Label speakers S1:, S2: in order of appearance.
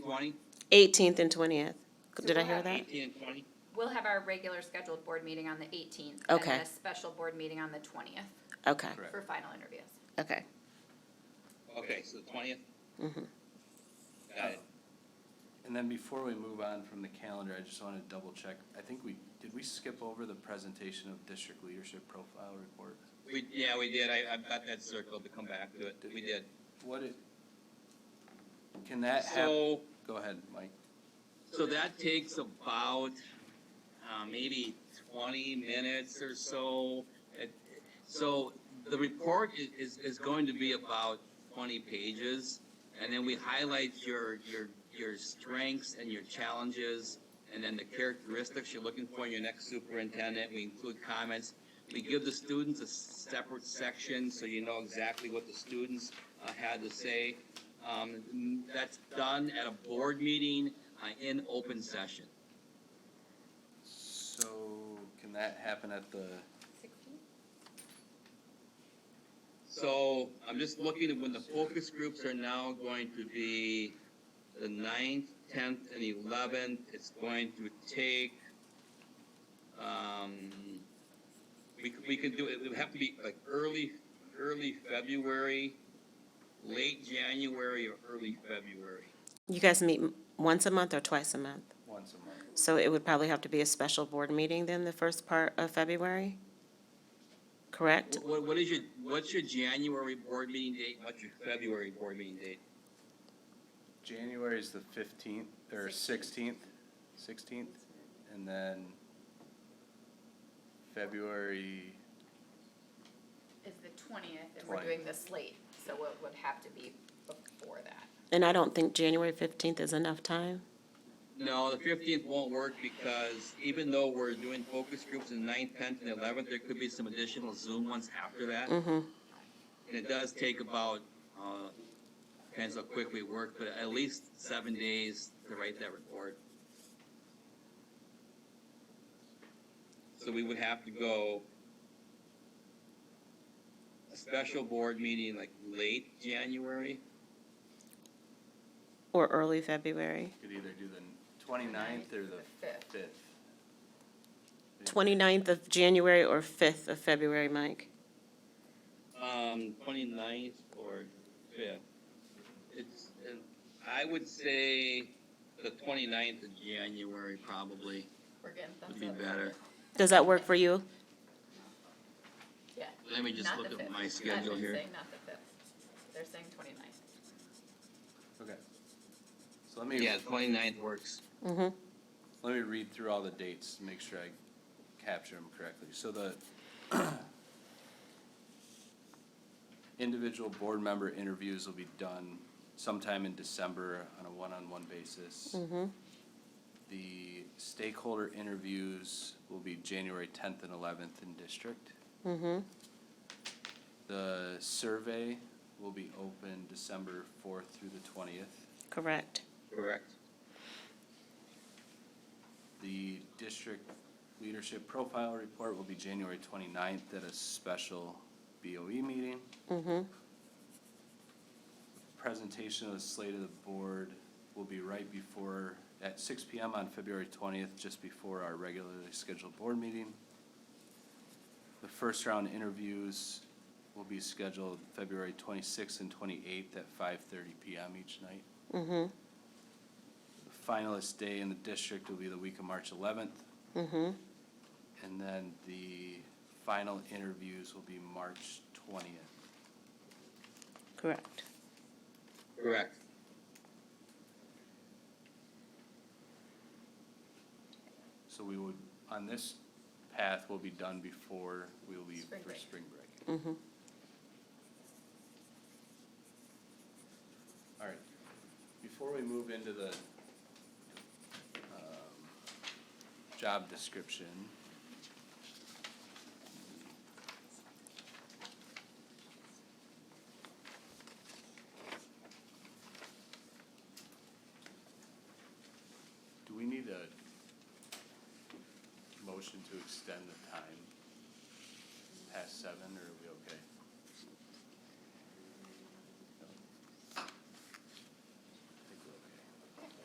S1: twenty?
S2: 18th and 20th. Did I hear that?
S1: Eighteen and twenty?
S3: We'll have our regular scheduled board meeting on the eighteenth. And
S2: Okay.
S3: then a special board meeting on the twentieth
S2: Okay,
S1: Correct.
S3: for final interviews.
S2: okay.
S1: Okay, so the twentieth? Uh, Got it.
S4: And then before we move on from the calendar, I just want to double check. I think we, did we skip over the presentation of district leadership profile report?
S1: We, yeah, we did. I, I've got that circled to come back to it. We did.
S4: What it, can that happen?
S1: So,
S4: Go ahead, Mike.
S1: so that takes about, uh, maybe twenty minutes or so. It- So the report i- is, is going to be about twenty pages. And then we highlight your, your, your strengths and your challenges, and then the characteristics you're looking for in your next superintendent. We include comments. We give the students a separate section, so you know exactly what the students uh, had to say. Um, that's done at a board meeting, uh, in open session.
S4: So can that happen at the,
S1: So I'm just looking at when the focus groups are now going to be the ninth, tenth, and eleventh. It's going to take, um, we, c- we could do it, it would have to be like early, early February, late January or early February.
S2: You guys meet m- once a month or twice a month?
S4: once a month?
S2: So it would probably have to be a special board meeting then, the first part of February? Correct?
S1: Wh- What, what is your, what's your January board meeting date? What's your February board meeting date?
S4: January is the fifteenth, or sixteenth, sixteenth, and then February,
S3: Is the twentieth, and we're
S4: 20th.
S3: doing this late, so it would have to be before that.
S2: And I don't think January 15th is enough time?
S1: No, the fifteenth won't work because even though we're doing focus groups in ninth, tenth, and eleventh, there could be some additional Zoom ones after that. And
S2: Mm-hmm,
S1: it does take about, uh, depends how quick we work, but at least seven days to write that report. So we would have to go a special board meeting like late January.
S2: or early February.
S4: could either do the twenty-ninth or the
S3: fifth.
S4: fifth.
S2: 29th of January or 5th of February, Mike?
S1: Um, twenty-ninth or fifth. It's, and I would say the twenty-ninth of January probably
S3: We're getting thumbs
S1: would
S3: up.
S1: be better.
S2: Does that work for you?
S3: Yeah.
S1: Let me just
S3: Not the
S1: look at
S3: fifth.
S1: my
S3: I've
S1: schedule
S3: been
S1: here.
S3: saying not the fifth. They're saying twenty-ninth.
S4: Okay. So let me.
S1: Yeah, twenty-ninth works.
S2: Mm-hmm.
S4: Let me read through all the dates to make sure I capture them correctly. So the individual board member interviews will be done sometime in December on a one-on-one basis.
S2: Mm-hmm.
S4: The stakeholder interviews will be January tenth and eleventh in district.
S2: Mm-hmm.
S4: The survey will be open December fourth through the twentieth.
S2: Correct.
S1: Correct.
S4: The district leadership profile report will be January 29th at a special BOE meeting.
S2: Mm-hmm.
S4: Presentation of the slate of the board will be right before, at six PM on February 20th, just before our regularly scheduled board meeting. The first round interviews will be scheduled February 26th and 28th at 5:30 PM each night.
S2: Mm-hmm.
S4: The Finalist day in the district will be the week of March 11th.
S2: Mm-hmm.
S4: And then the final interviews will be March twentieth.
S2: Correct.
S1: Correct.
S4: So we would, on this path, will be done before we leave
S3: Spring
S4: for
S3: break.
S4: spring break.
S2: Mm-hmm.
S4: All right. Before we move into the, um, job description. Do we need a motion to extend the time past seven, or are we okay?